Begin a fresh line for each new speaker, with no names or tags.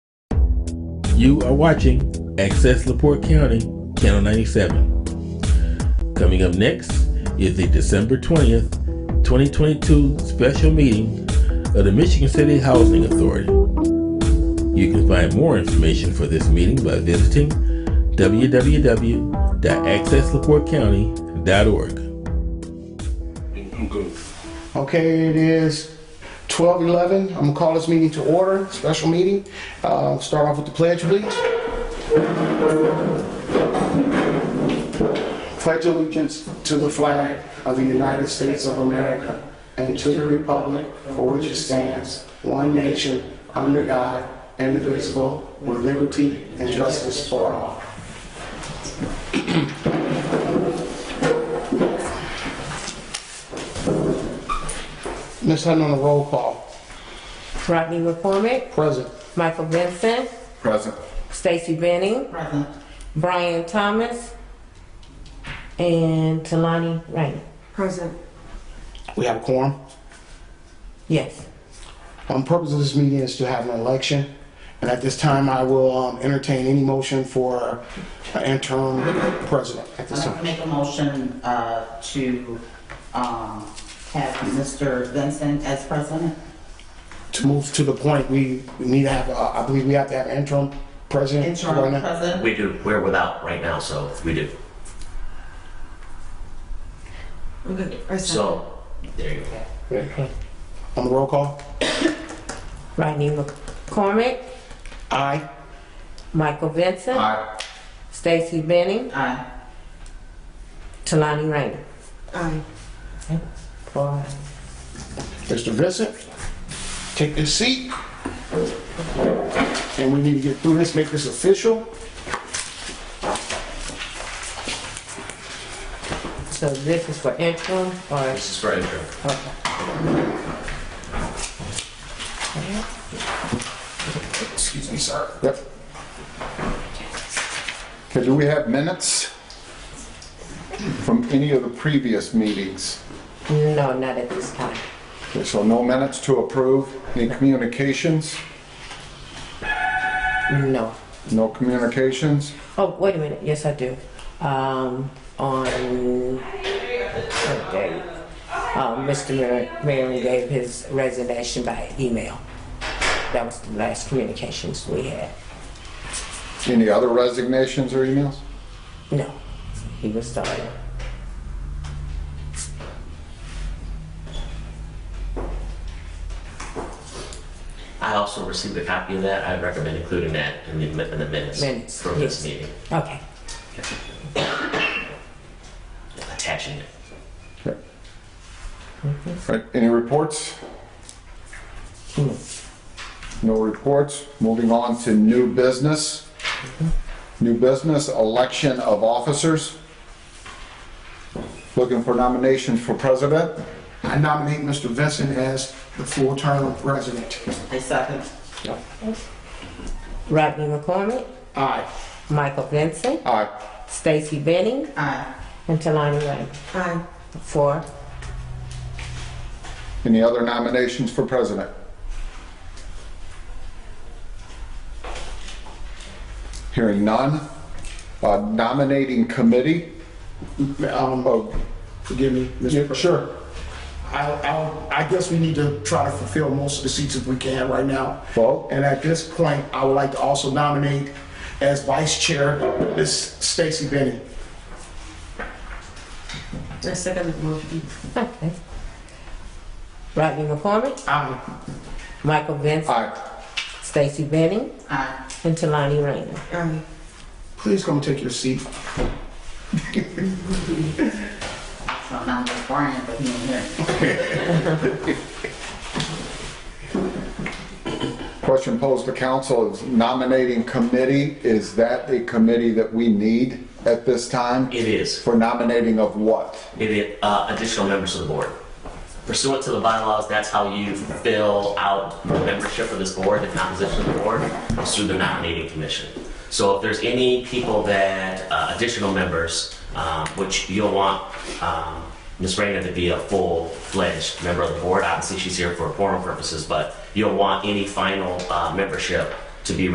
You are watching Access LaPorte County, Channel 97. Coming up next is the December 20th, 2022 special meeting of the Michigan City Housing Authority. You can find more information for this meeting by visiting www.accesslaportecounty.org. I'm good.
Okay, it is 12:11. I'm gonna call this meeting to order, special meeting. Uh, Start off with the pledge, please. Pledge allegiance to the flag of the United States of America and to the republic for which it stands, one nation, under God, indivisible, with liberty and justice for all. Ms. Hutton on the roll call.
Rodney McCormick,
Present.
Michael Vincent,
Present.
Stacy Benning, Brian Thomas, and Talani Rain.
Present.
We have a quorum.
Yes.
Um, purpose of this meeting is to have an election, and at this time, I will um, entertain any motion for an interim president at
I'd
this
like to
time.
make a motion uh, to um, have Mr. Vincent as president.
To move to the point, we we need to have, uh, I believe we have to have an interim president. right
Interim
now.
president.
We do. We're without right now, so we do.
Okay.
So there you go.
On the roll call?
Rodney McCormick,
Aye.
Michael Vincent, Stacy Benning,
Aye.
Talani Rain.
Aye.
Four.
Mr. Vincent, take this seat. And we need to get through this, make this official.
So this is for interim or?
This is for intro.
Excuse me, sir.
Yep.
Okay, do we have minutes from any of the previous meetings?
No, not at this time.
Okay, so no minutes to approve. Any communications?
No.
No communications?
Oh, wait a minute. Yes, I do. Um, on what day? Uh, Mr. Mar- Marion gave his resignation by email. That was the last communications we had.
Any other resignations or emails?
No, he was started.
I also received a copy of that. I recommend including that in the, in the minutes,
Minutes,
from this
yes.
meeting.
Okay.
Attaching it.
Okay. Right, any reports? Hmm. No reports. Moving on to new business. New business, election of officers. Looking for nominations for president.
I nominate Mr. Vincent as the full term president.
I second.
Rodney McCormick,
Aye.
Michael Vincent,
Aye.
Stacy Benning,
Aye.
and Talani Ray.
Aye.
Four.
Any other nominations for president? Hearing none. Uh, Nominating committee,
Um,
oh,
forgive me, Mr.
yeah,
President.
sure.
I, I, I guess we need to try to fulfill most of the seats if we can right now.
Well-
And at this point, I would like to also nominate as vice chair, Ms. Stacy Benny.
I second the motion.
Okay. Rodney McCormick,
Aye.
Michael Vincent,
Aye.
Stacy Benning,
Aye.
and Talani Rain.
Aye.
Please come take your seat.
So now it's Brian, but he ain't here.
Question posed to council is nominating committee, is that a committee that we need at this time?
It is.
For nominating of what?
It is uh, additional members of the board. Pursuant to the bylaws, that's how you fill out the membership of this board, the composition of the board, is through the nominating commission. So if there's any people that, uh, additional members, um, which you'll want um, Ms. Rayner to be a full-fledged member of the board, obviously she's here for forum purposes, but you'll want any final uh, membership to be